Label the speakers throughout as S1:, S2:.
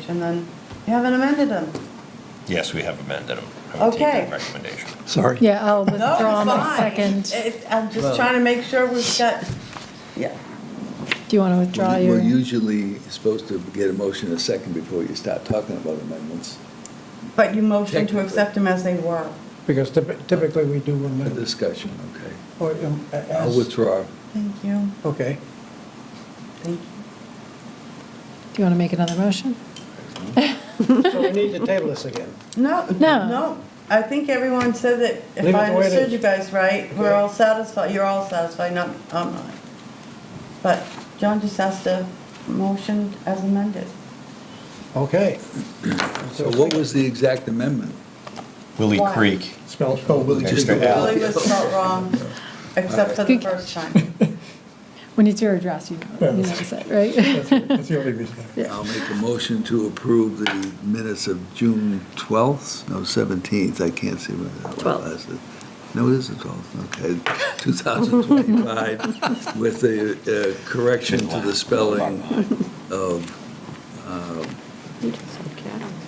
S1: recommendation, then you haven't amended them.
S2: Yes, we have amended them. I would take
S1: Okay.
S2: that Recommendation.
S3: Sorry.
S4: Yeah, I'll
S1: No,
S4: withdraw
S1: it's
S4: my
S1: fine.
S4: second.
S1: It- I'm just trying to make sure we've got, yeah.
S4: Do you want to withdraw your?
S3: We're usually supposed to get a motion a second before you start talking about amendments.
S1: But you motioned to
S3: Technically.
S1: accept them as they were.
S5: Because typ- typically we do
S3: A
S5: amend.
S3: discussion, okay.
S5: or, um, a-
S3: I'll
S5: as-
S3: withdraw.
S1: Thank you.
S5: Okay.
S1: Thank you.
S4: Do you want to make another motion?
S5: So we need to table this again.
S1: No,
S4: No.
S1: no. I think everyone said that, if
S5: Leave it
S1: I
S5: the way it
S1: understood
S5: is.
S1: you guys right, we're
S5: Okay.
S1: all satisfied, you're all satisfied, not, I'm not. But John just asked a motion as amended.
S5: Okay.
S3: So what was the exact amendment?
S2: Willie
S1: Why?
S2: Creek.
S3: Spell. Oh, Willie just.
S2: Extra L.
S1: Really was spelled wrong, except for the
S4: Good.
S1: first time.
S4: When it's your address, you know, you notice it, right?
S5: the only reason.
S3: I'll make a motion to approve the minutes of June 12th, no, 17th, I can't see what that was.
S4: 12th.
S3: No, it is the 12th, okay, 2025, with the uh, correction to the spelling of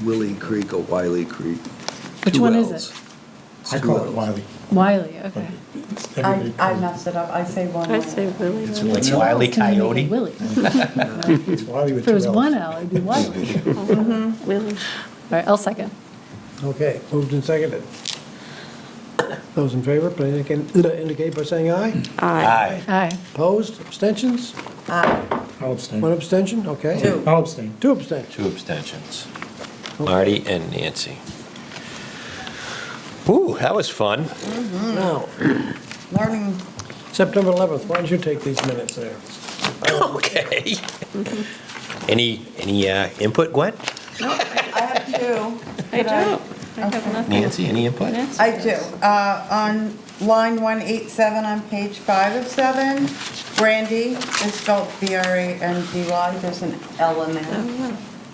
S3: Willie Creek or Wiley Creek.
S4: Which
S3: Two
S4: one is
S3: Ls.
S4: it?
S3: It's
S6: I
S3: two
S6: call it
S3: Ls.
S6: Wiley.
S4: Wiley,
S1: I,
S4: okay.
S6: Everybody
S1: I
S6: calls
S1: messed it up, I say one.
S7: I
S1: word.
S7: say really.
S2: It's
S7: really.
S2: It's Wiley
S4: It's gonna make
S2: Coyote.
S4: it Willie.
S6: it- It's Wiley with
S4: If
S6: two
S4: it was
S6: L's.
S4: one L, it'd be Wiley. All
S7: Really.
S4: right, I'll second.
S5: Okay, moved and seconded. Those in favor, please indicate- indicate by saying aye.
S7: Aye.
S2: Aye.
S4: Aye.
S5: Opposed, abstentions?
S6: I'll
S5: One
S6: abstain.
S5: abstention, okay.
S1: Two.
S6: I'll abstain.
S5: Two abstentions.
S2: Two abstentions. Marty and Nancy. Ooh, that was fun.
S5: Now,
S1: Learning,
S5: September 11th, why don't you take these minutes there?
S2: Okay. Any, any uh, input, Gwen?
S1: I have two.
S7: I
S1: Could
S7: don't. I have nothing.
S2: Nancy, any input?
S7: Nancy
S1: I
S7: does.
S1: do. Uh, On line 187 on page 5 of 7, Brandy is spelled B-R-A-N-D-Y, there's an L in there.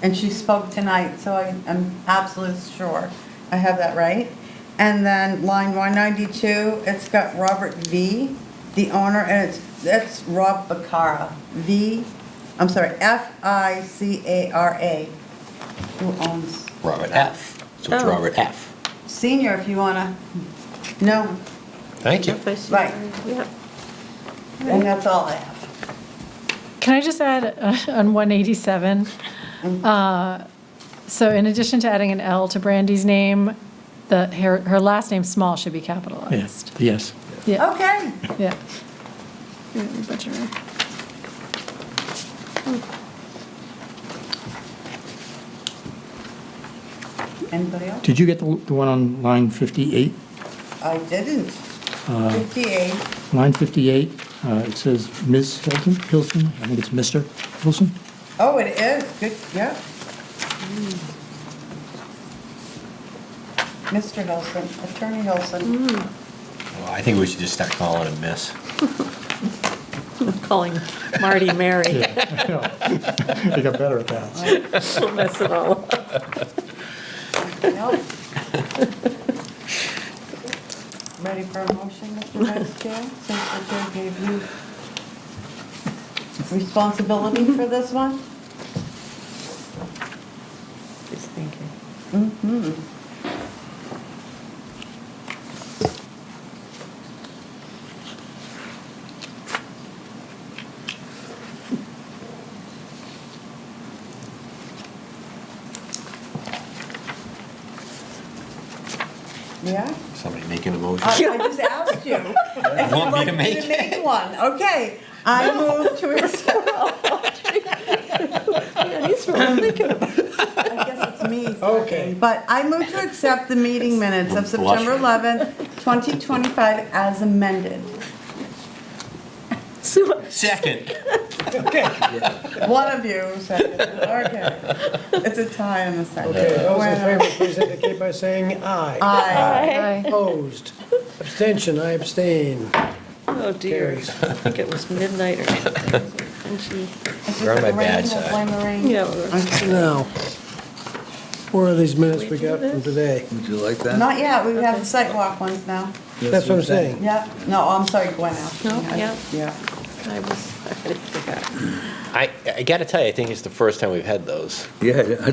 S1: And she spoke tonight, so I am absolutely sure I have that right. And then line 192, it's got Robert V., the owner, and it's, that's Rob Ficara, V, I'm sorry, F-I-C-A-R-A, who owns
S2: Robert F. So it's
S7: Oh.
S2: Robert F.
S1: senior if you want to know.
S2: Thank you.
S7: If I see
S1: Right.
S7: her, yeah.
S1: And that's all I have.
S4: Can I just add uh, on 187? uh, So in addition to adding an L to Brandy's name, the, her, her last name, Small, should be capitalized.
S6: Yes.
S4: Yeah,
S1: Okay.
S4: yeah. Yeah, you butchered it.
S1: Anybody else?
S6: Did you get the the one on line 58?
S1: I didn't. 58.
S6: Line 58, uh, it says Ms. Hilton, Hilson, I think it's Mr. Hilson.
S1: Oh, it is, good, yeah. Mr. Hmm. Hilson, Attorney Hilson.
S2: Well, I think we should just start calling him Miss.
S7: I'm calling Marty Mary.
S6: They got better at that.
S7: She'll mess it all up.
S1: Anybody else? Ready for a motion, Mr. Vice Chair, since the chair gave you responsibility for this one?
S7: Just thinking.
S1: Yeah?
S2: Somebody making a motion?
S1: I I just asked you. Uh, if
S2: Want
S1: you'd
S2: me
S1: like
S2: to make
S1: to make one, okay. I move to accept.
S7: Yeah, these were all thinking about.
S1: I guess it's me.
S5: Okay.
S1: But I move to accept the meeting minutes of
S2: I'm blushing.
S1: September 11th, 2025 as amended.
S7: Sue,
S2: Second.
S1: One of you seconded, okay. It's a tie in the second.
S5: Okay, those in
S1: Well,
S5: favor, please indicate by saying aye.
S1: Aye.
S4: Aye.
S5: Opposed, abstention, I abstain.
S7: oh dear, I
S5: Carries.
S7: think it was midnight or something. And she,
S1: It's
S2: You're on
S1: just
S2: my bad
S1: the rain, we'll
S2: side.
S1: blame the rain.
S7: yeah, we were-
S5: Now, where are these minutes we got from today?
S3: Would you like that?
S1: Not yet, we have the sidewalk ones now.
S5: That's what I'm saying.
S1: Yeah, no, I'm sorry, Gwen asked.
S7: No,
S1: me.
S7: yeah.
S1: Yeah.
S7: I was, I forgot.
S2: I, I gotta tell you, I think it's the first time we've had those.
S3: Yeah, I